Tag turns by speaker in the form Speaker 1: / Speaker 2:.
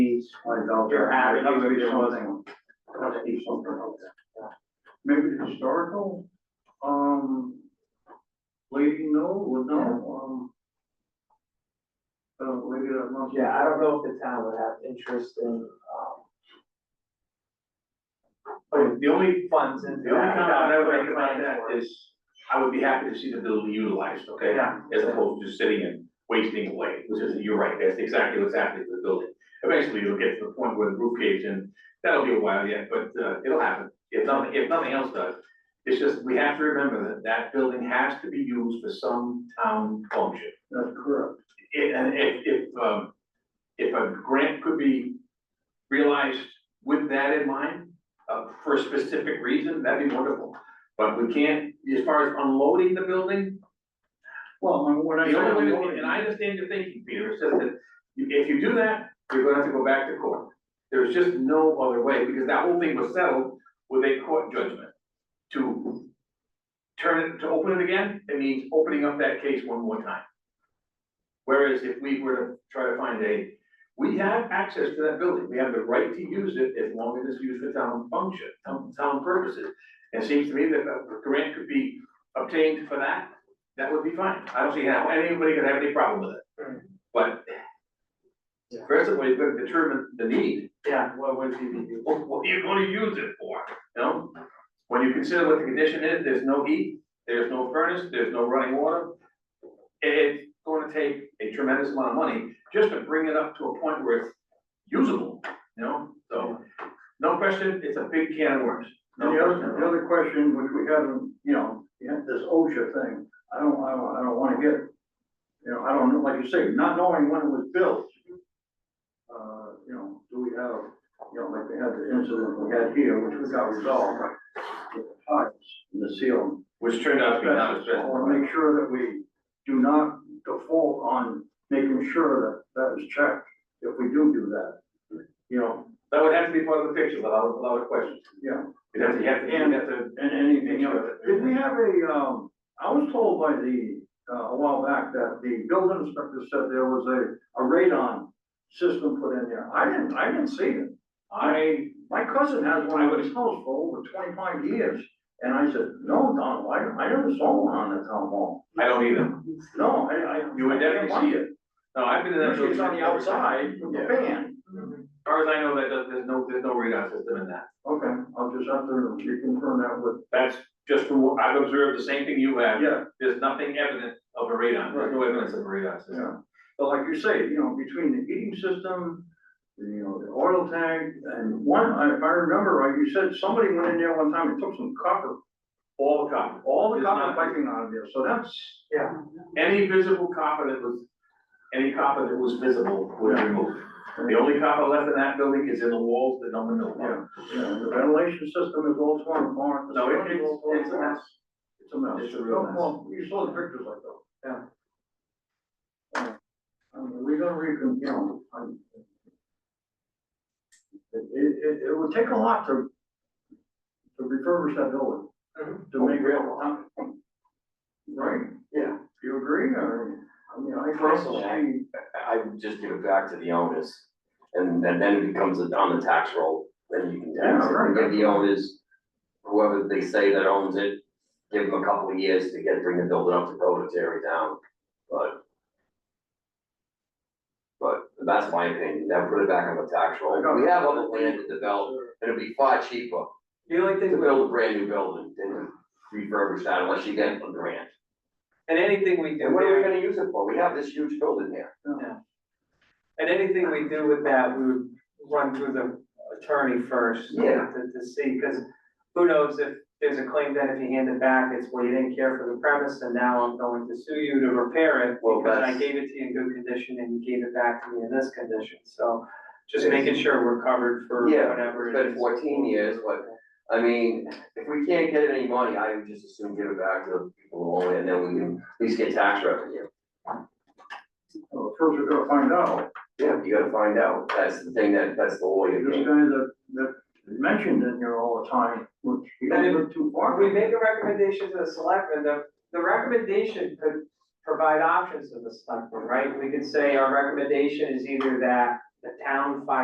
Speaker 1: piece, you're having, even if there wasn't. must be something out there.
Speaker 2: Maybe historical, um, lady, no, would know, um. Uh, lady that must.
Speaker 1: Yeah, I don't know if the town would have interest in, um. putting the only funds into
Speaker 2: The only
Speaker 1: that.
Speaker 2: comment I would make
Speaker 1: without
Speaker 2: about that
Speaker 1: planning
Speaker 2: is,
Speaker 3: I would be happy to see the building utilized, okay?
Speaker 2: yeah,
Speaker 3: As opposed to just sitting and wasting away, which is, you're right, that's exactly what's happening to the building. Eventually, it'll get to the point where the roof caves in, that'll be a while yet, but, uh, it'll happen. If nothing, if nothing else does, it's just, we have to remember that that building has to be used for some town function.
Speaker 2: that's correct.
Speaker 3: It- And if, if, um, if a grant could be realized with that in mind, uh, for a specific reason, that'd be wonderful. But we can't, as far as unloading the building,
Speaker 2: Well, and what I.
Speaker 3: the only way, and I understand your thinking, Peter, it's just that you- if you do that, you're gonna have to go back to court. There's just no other way, because that whole thing was settled with a court judgment. To turn it, to open it again, it means opening up that case one more time. Whereas if we were to try to find a, we have access to that building, we have the right to use it as long as it's used for town function, town, town purposes. It seems to me that a grant could be obtained for that, that would be fine. I don't see how anybody could have any problem with
Speaker 1: Right.
Speaker 3: it. But
Speaker 1: Yeah.
Speaker 3: first of all, you've got to determine the need.
Speaker 1: for- Yeah, what would you be doing?
Speaker 3: What, what are you gonna use it for, you know? When you consider what the condition is, there's no heat, there's no furnace, there's no running water. It's gonna take a tremendous amount of money just to bring it up to a point where it's usable, you know? So, no question, it's a big can of worms. No
Speaker 2: And the other,
Speaker 3: question.
Speaker 2: the other question, which we haven't, you know, you have this OSHA thing, I don't, I don't, I don't wanna get, you know, I don't know, like you say, not knowing when it was built. Uh, you know, do we have, you know, like we had the incident we had here, which was got resolved, with the pipes and the seal.
Speaker 3: Which turned out to be not as
Speaker 2: I wanna make sure that we do not default on making sure that that is checked, if we do do that, you know,
Speaker 3: That would have to be part of the picture, without, without a question.
Speaker 2: yeah.
Speaker 3: You'd have to, you have to, you'd have to
Speaker 2: And anything else, did we have a, um, I was told by the, uh, a while back that the building inspector said there was a, a radon system put in there. I didn't, I didn't see it. I, my cousin has one of his house for over twenty-five years, and I said, no, Donald, I, I never saw one on the town hall.
Speaker 3: I don't either.
Speaker 2: No, I, I.
Speaker 3: You would definitely see
Speaker 2: it.
Speaker 3: No, I've been in that.
Speaker 2: Usually it's on the
Speaker 3: building.
Speaker 2: outside with the
Speaker 3: Yeah.
Speaker 2: fan.
Speaker 1: Mm-hmm,
Speaker 3: As far as I know, that, does- there's no, there's no radar system in that.
Speaker 2: Okay, I'll just have to reconfirm that with.
Speaker 3: That's just from, what I've observed the same thing you have.
Speaker 2: Yeah.
Speaker 3: There's nothing evident of a radar, there's no evidence of a radar system.
Speaker 2: Yeah, but like you say, you know, between the heating system, the, you know, the oil tank, and one, I- if I remember right, you said somebody went in there one time and took some copper,
Speaker 3: All the copper,
Speaker 2: all the
Speaker 3: It's
Speaker 2: copper
Speaker 3: not-
Speaker 2: piping out of there, so that's,
Speaker 1: Yeah,
Speaker 3: any visible copper that was, any copper that was visible was removed. The only copper left in that building is in the walls that no one knows about.
Speaker 2: yeah, yeah, and the ventilation system is all torn apart. the
Speaker 3: No, it-
Speaker 2: ceiling's all
Speaker 3: it's-
Speaker 2: torn
Speaker 3: it's a
Speaker 2: apart.
Speaker 3: mess.
Speaker 2: It's a mess.
Speaker 3: It's a
Speaker 2: No,
Speaker 3: real mess.
Speaker 2: Well, you saw the pictures like that. Yeah. I mean, we don't recon, you know, I'm. It, it, it would take a lot to, to refurbish that building.
Speaker 3: Mm-hmm.
Speaker 1: Mhm.
Speaker 2: To make real. Right,
Speaker 1: yeah.
Speaker 2: do you agree, or, I mean, I
Speaker 4: Personally,
Speaker 2: personally,
Speaker 4: I would just give it back to the owners, and, and then it becomes on the tax roll, then you can tax
Speaker 2: Yeah, right.
Speaker 4: it, give the owners, whoever they say that owns it, give them a couple of years to get, bring the building up to code or tear it down, but. But that's my opinion, then put it back on the tax roll, we have other land to develop, and it'd be far cheaper
Speaker 1: The only
Speaker 4: to
Speaker 1: thing,
Speaker 4: build a brand new building than to refurbish that unless you get a grant.
Speaker 1: and anything we do.
Speaker 4: And what are we
Speaker 1: there-
Speaker 4: gonna use it for? We have this huge building here.
Speaker 1: And anything we do with that, we would run through the attorney first.
Speaker 4: Yeah.
Speaker 1: To, to see, because who knows if there's a claim that if you hand it back, it's, well, you didn't care for the premise, and now I'm going to sue you to repair it.
Speaker 4: Well,
Speaker 1: Because I
Speaker 4: that's-
Speaker 1: gave it to you in good condition and you gave it back to me in this condition, so just making sure we're covered for
Speaker 4: Yeah,
Speaker 1: whatever.
Speaker 4: it's
Speaker 1: it
Speaker 4: been
Speaker 1: is.
Speaker 4: 14 years, but- I mean, if we can't get any money, I would just assume give it back to the people who own it, and then we can at least get tax revenue.
Speaker 2: well, first we gotta find out,
Speaker 4: Yeah, you gotta find out, that's the thing that, that's the lawyer
Speaker 2: this guy
Speaker 4: game.
Speaker 2: that, that is mentioned in here all the time, which he doesn't look too far.
Speaker 1: We make a recommendation to the selectmen, the, the recommendation could provide options to the selectmen, right? We could say our recommendation is either that the town finds